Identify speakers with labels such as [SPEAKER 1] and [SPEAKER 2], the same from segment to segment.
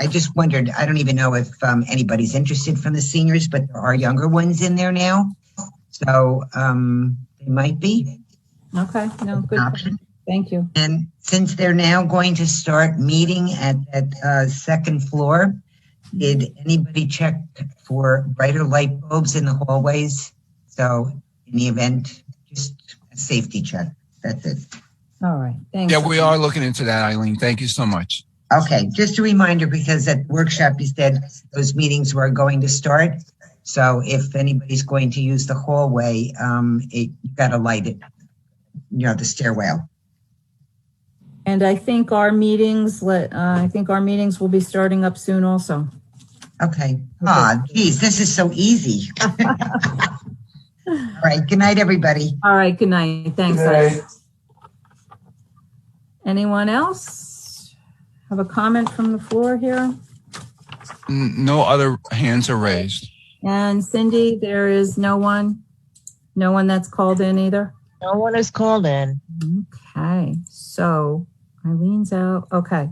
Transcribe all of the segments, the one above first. [SPEAKER 1] I just wondered, I don't even know if um, anybody's interested from the seniors, but there are younger ones in there now. So um, they might be.
[SPEAKER 2] Okay, no, good.
[SPEAKER 1] Option.
[SPEAKER 2] Thank you.
[SPEAKER 1] And since they're now going to start meeting at that uh, second floor, did anybody check for brighter light bulbs in the hallways? So in the event, just a safety check. That's it.
[SPEAKER 2] All right, thanks.
[SPEAKER 3] Yeah, we are looking into that, Eileen. Thank you so much.
[SPEAKER 1] Okay, just a reminder, because at the workshop, you said those meetings were going to start. So if anybody's going to use the hallway, um, it, you gotta light it, you know, the stairwell.
[SPEAKER 2] And I think our meetings, let, uh, I think our meetings will be starting up soon also.
[SPEAKER 1] Okay, ah, geez, this is so easy. All right, good night, everybody.
[SPEAKER 2] All right, good night. Thanks. Eileen. Anyone else have a comment from the floor here?
[SPEAKER 3] N- No other hands are raised.
[SPEAKER 2] And Cindy, there is no one, no one that's called in either?
[SPEAKER 4] No one is called in.
[SPEAKER 2] Okay, so Eileen's out. Okay,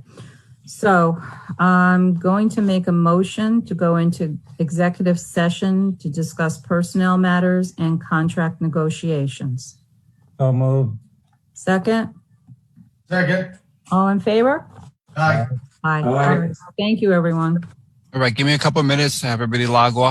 [SPEAKER 2] so I'm going to make a motion to go into executive session to discuss personnel matters and contract negotiations.
[SPEAKER 5] So moved.
[SPEAKER 2] Second,
[SPEAKER 6] Second.
[SPEAKER 2] all in favor?
[SPEAKER 6] Aye.
[SPEAKER 2] Aye.
[SPEAKER 5] Aye.
[SPEAKER 2] Thank you, everyone.
[SPEAKER 3] All right, give me a couple of minutes, have everybody log off.